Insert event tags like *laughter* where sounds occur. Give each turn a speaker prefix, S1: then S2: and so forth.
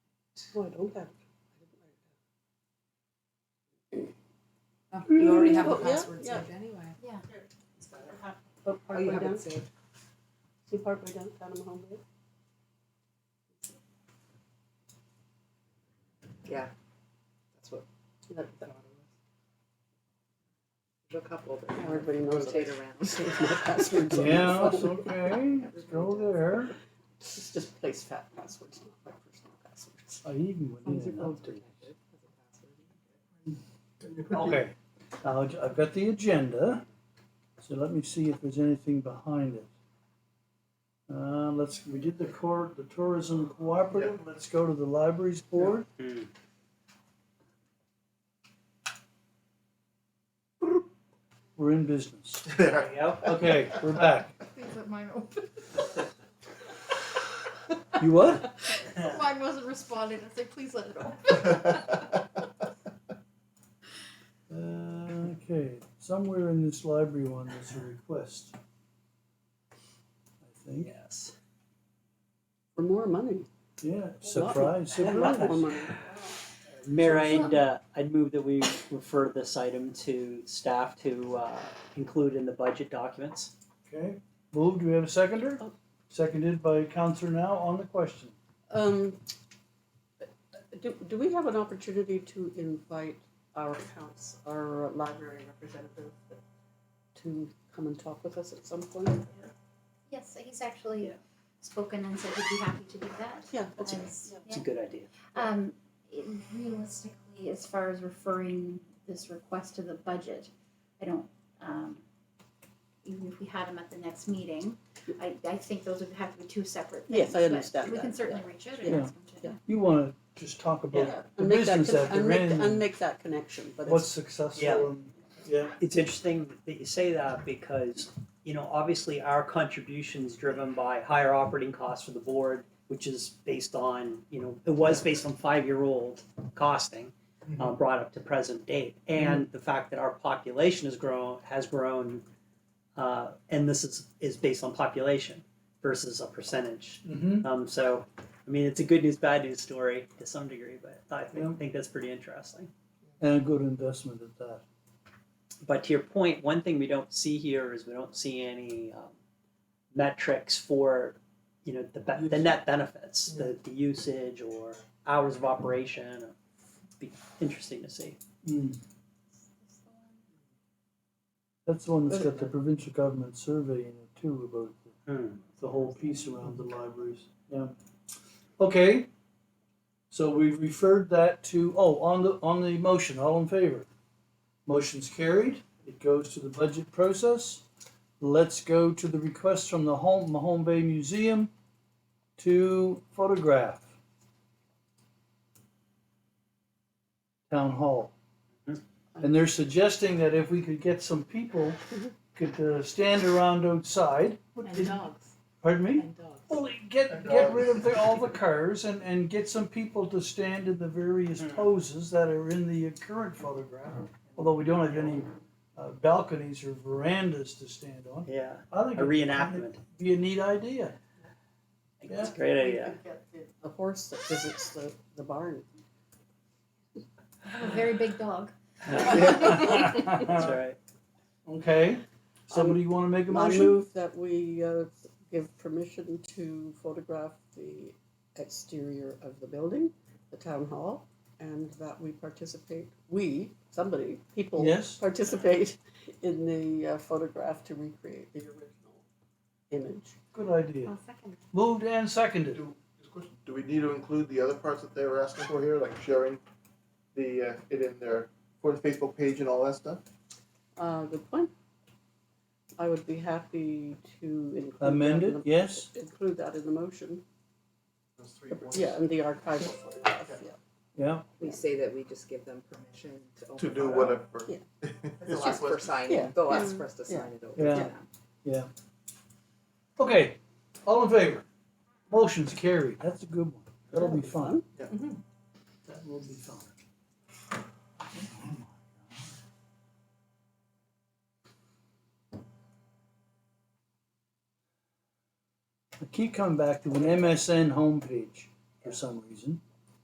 S1: Oh, I don't have.
S2: Oh, You already have the
S1: Oh, yeah,
S2: password
S1: yeah.
S2: saved anyway.
S3: Yeah.
S1: Oh,
S2: Oh,
S1: part
S2: you
S1: way
S2: have
S1: down,
S2: it saved.
S1: see part way down, down on my home page.
S2: Yeah. That's what
S1: That,
S2: I
S1: that,
S2: thought it was. There's a couple that
S1: now everybody knows that
S2: rotate
S1: *laughs* I
S2: around.
S1: saved my passwords on my
S4: Yeah,
S5: *laughs*
S4: it's
S1: phone.
S4: okay, go there,
S1: It's just place fat passwords, not my personal passwords.
S4: I even went
S1: These are
S4: in and
S1: both
S4: updated.
S1: protected.
S4: Okay, now j- I've got the agenda, so let me see if there's anything behind it. Uh, let's, we did the court, the tourism cooperative, let's go to the libraries board. We're in business.
S6: There we go.
S4: Okay, we're back.
S3: Please let mine open.
S4: You what?
S3: Mine wasn't responding. I said, please let it open.
S4: Uh, okay, somewhere in this library one, there's a request. I think,
S1: Yes. For more money.
S4: yeah, surprise,
S1: A lot more
S4: surprise.
S1: money.
S5: Mayor, I'd, uh, I'd move that we refer this item to staff to, uh, include in the budget documents.
S4: Okay, moved, do we have a seconder? Seconded by Counselor now on the question.
S1: Um, do, do we have an opportunity to invite our accounts, our library representative to come and talk with us at some point?
S7: Yes, he's actually spoken and said he'd be happy to do that.
S1: Yeah, that's
S7: As-
S5: It's a good idea.
S7: yeah. Um, it- realistically, as far as referring this request to the budget, I don't, um, even if we had him at the next meeting, I, I think those would have to be two separate things.
S1: Yes, I
S7: but
S1: understand
S7: We can
S1: that,
S7: certainly reach out and
S4: Yeah.
S7: ask him to.
S1: Yeah.
S4: You wanna just talk about
S1: Yeah,
S4: the
S1: and make that,
S4: business that
S1: con- and
S4: they're
S1: make,
S4: in
S1: and
S4: and
S1: make that connection, but
S4: what's
S1: it's,
S5: Yeah.
S4: successful and, yeah,
S5: It's interesting that you say that because, you know, obviously our contribution's driven by higher operating costs for the board, which is based on, you know, it was based on five-year-old costing, uh, brought up to present date. And the fact that our population has grown, has grown, uh, and this is, is based on population versus a percentage.
S4: mm-hmm,
S5: Um, so, I mean, it's a good news, bad news story to some degree, but I think,
S4: Yeah.
S5: think that's pretty interesting.
S4: and a good investment at that.
S5: But to your point, one thing we don't see here is we don't see any um, metrics for, you know, the be- the
S4: Use.
S5: net benefits, the, the usage or hours of operation. uh, Be interesting to see.
S4: Mm. That's the one that's got the provincial government survey in it too, about the the whole piece around the libraries, yeah. Okay, so we've referred that to, oh, on the, on the motion, all in favor? Motion's carried, it goes to the budget process. Let's go to the request from the home, Mahone Bay Museum to photograph. Town Hall. And they're suggesting that if we could get some people, could uh, stand around outside,
S2: And dogs,
S4: pardon me?
S2: and dogs.
S4: Well, get get rid of the, all the cars and, and get some people to stand in the
S5: Hmm.
S4: various poses that are in the current photograph. Although we don't have any uh, balconies or verandas to stand on,
S5: Yeah,
S4: I
S5: a
S4: think it'd
S5: reenactment.
S4: be a neat idea.
S5: I think It's a great
S7: *laughs*
S5: idea.
S1: a horse that visits the, the barn.
S7: I have a very big dog.
S5: *laughs* That's right.
S4: okay, somebody want to make a
S1: I
S4: motion?
S1: move that we uh, give permission to photograph the exterior of the building, the town hall, and that we participate, we, somebody, people
S4: Yes,
S1: participate in the uh, photograph to recreate the original image.
S4: good idea.
S7: second.
S4: Moved and seconded.
S6: Do we need to include the other parts that they were asking for here, like sharing the, uh, it in their, for the Facebook page and all that stuff?
S1: Uh, good point. I would be happy to include that in
S4: Amended,
S1: the-
S4: yes.
S1: Include that in the motion,
S6: Those three points.
S1: yeah, and the archival photograph, yeah.
S4: Yeah,
S2: We say that we just give them permission to open
S6: To do
S2: photo.
S6: whatever. *laughs*
S1: Yeah.
S2: They'll ask for
S1: Yeah.
S2: signing, they'll ask
S1: Yeah.
S2: for us to
S1: Yeah.
S2: sign it over to
S4: Yeah.
S2: them.
S4: okay, all in favor? Motion's carried. That's a good one. That'll be fun. Mm-hmm. That will be fun. I keep coming back to an MSN homepage for some reason.